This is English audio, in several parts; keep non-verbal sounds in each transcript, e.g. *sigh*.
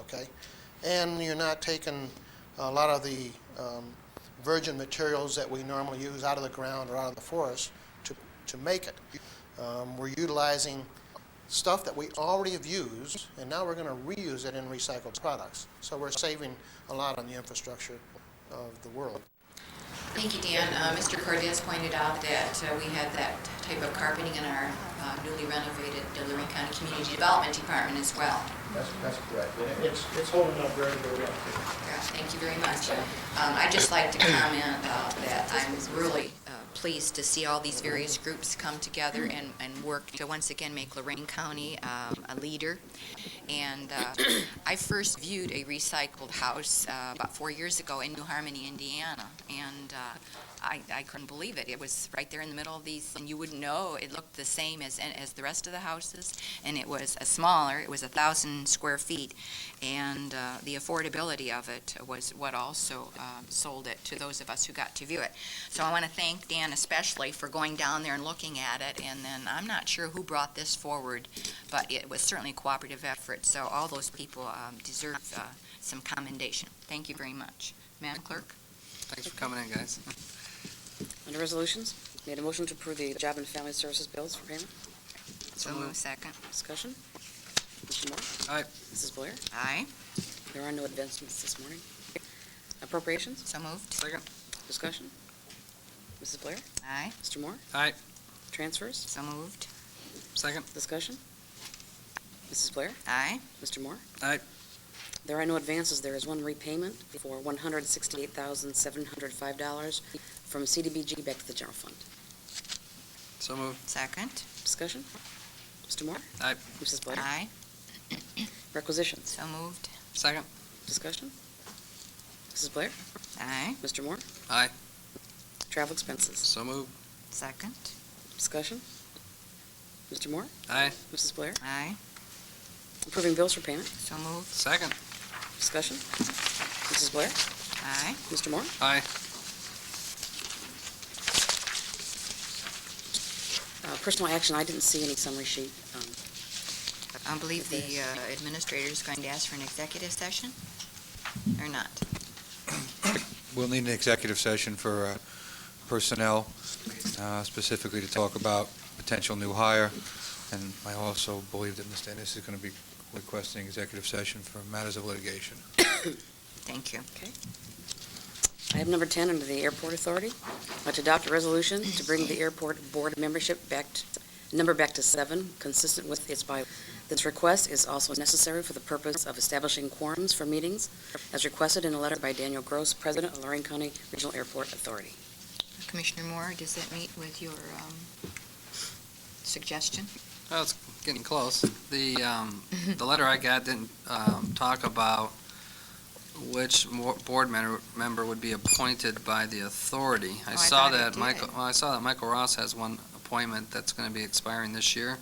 okay? And you're not taking a lot of the um, virgin materials that we normally use out of the ground or out of the forest to, to make it. Um, We're utilizing stuff that we already have used, and now we're going to reuse it in recycled products. So we're saving a lot on the infrastructure of the world. Thank you, Dan. Uh, Mr. Cordez pointed out that uh, we have that type of carpeting in our uh, newly renovated Lorraine County Community Development Department as well. That's, that's correct. And It's, it's holding up very, very well. Yeah, Thank you very much. Um, I'd just like to comment uh, that I'm really uh, pleased to see all these various groups come together and, and work to once again make Lorraine County um, a leader. And uh, I first viewed a recycled house uh, about four years ago in New Harmony, Indiana, and uh, I, I couldn't believe it. It was right there in the middle of these, and you wouldn't know, it looked the same as, as the rest of the houses, and it was a smaller, it was a thousand square feet, and uh, the affordability of it was what also um, sold it to those of us who got to view it. So I want to thank Dan especially for going down there and looking at it, and then, I'm not sure who brought this forward, but it was certainly a cooperative effort, so all those people um, deserve uh, some commendation. Thank you very much. Madam Clerk? Thanks for coming in, guys. Under resolutions, made a motion to approve the Job and Family Services bills for payment. So moved. Second. Discussion? Mr. Moore? Aye. Mrs. Blair? Aye. There are no advancements this morning. Appropriations, So moved. Second? discussion? Mrs. Blair? Aye. Mr. Moore? Aye. Transfers, So moved. Second? discussion? Mrs. Blair? Aye. Mr. Moore? Aye. There are no advances. There is one repayment for $168,705 from CDBG back to the general fund. So moved. Second. Discussion? Mr. Moore? Aye. Mrs. Blair? Aye. Requisitions, So moved. Second? discussion? Mrs. Blair? Aye. Mr. Moore? Aye. Travel expenses. So moved. Second. Discussion? Mr. Moore? Aye. Mrs. Blair? Aye. Approving bills for payment. So moved. Second? Discussion? Mrs. Blair? Aye. Mr. Moore? Aye. Uh, Personal action, I didn't see any summary sheet. Um, I believe the uh, administrator is going to ask for an executive session, or not? We'll need an executive session for uh, personnel, uh, specifically to talk about potential new hire. And I also believe that Ms. Dennis is going to be requesting executive session for matters of litigation. Thank you. Item number 10, under the Airport Authority, I'd like to adopt a resolution to bring the airport board membership back, to- number back to seven, consistent with its bylaw. This request is also necessary for the purpose of establishing quorums for meetings, as requested in a letter by Daniel Gross, President of Lorraine County Regional Airport Authority. Commissioner Moore, does that meet with your um, suggestion? Well, it's getting close. *laughs* The, um, the letter I got didn't, um, talk about which mo- board member, member would be appointed by the authority. Oh, I I saw thought it that did. Michael, well, I saw that Michael Ross has one appointment that's gonna be expiring this year.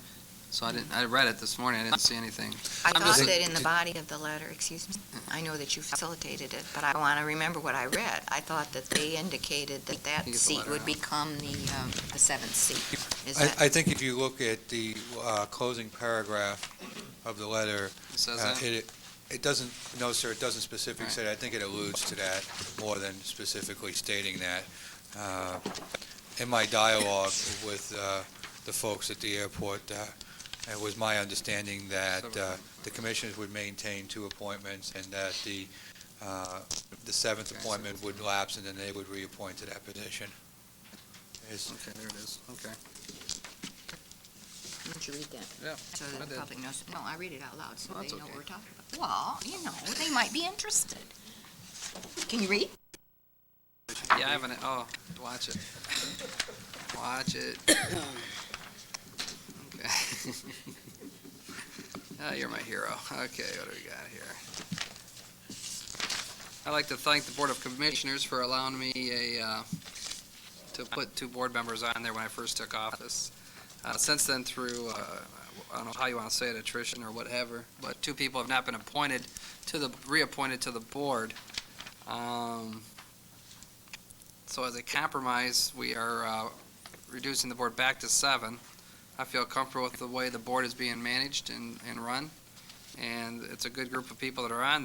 So I didn't, I read it this morning. I didn't see anything. I I'm thought just- that in the body of the letter, excuse me, I know that you facilitated it, but I want to remember what I read. I thought that they indicated that that You get the seat letter would out. become the, um, the seventh seat. Is I that, I think if you look at the uh, closing paragraph of the letter, It says uh, that? it it doesn't, no, sir, it doesn't specifically say that. I think it alludes to that more than specifically stating that. Uh, In my dialogue with uh, the folks at the airport, uh, it was my understanding that uh, the commissioners would maintain two appointments and that the, uh, the seventh appointment would lapse and then they would reappoint to that position. Is- Okay, there it is. Okay. did you read that? Yeah, So I that the did. public knows, no, I read it out loud, so Well, they that's know what okay. we're talking about. Well, you know, they might be interested. Can you read? Yeah, I haven't, oh, watch it. Watch it. *coughs* Okay. *laughs* Oh, you're my hero. Okay, what do we got here? I'd like to thank the Board of Commissioners for allowing me a, uh, to put two board members on there when I first took office. Uh, Since then, through, uh, I don't know how you want to say it, attrition or whatever, but two people have not been appointed to the, reappointed to the board. Um, so as a compromise, we are uh, reducing the board back to seven. I feel comfortable with the way the board is being managed and, and run. and it's a good group of people that are on there.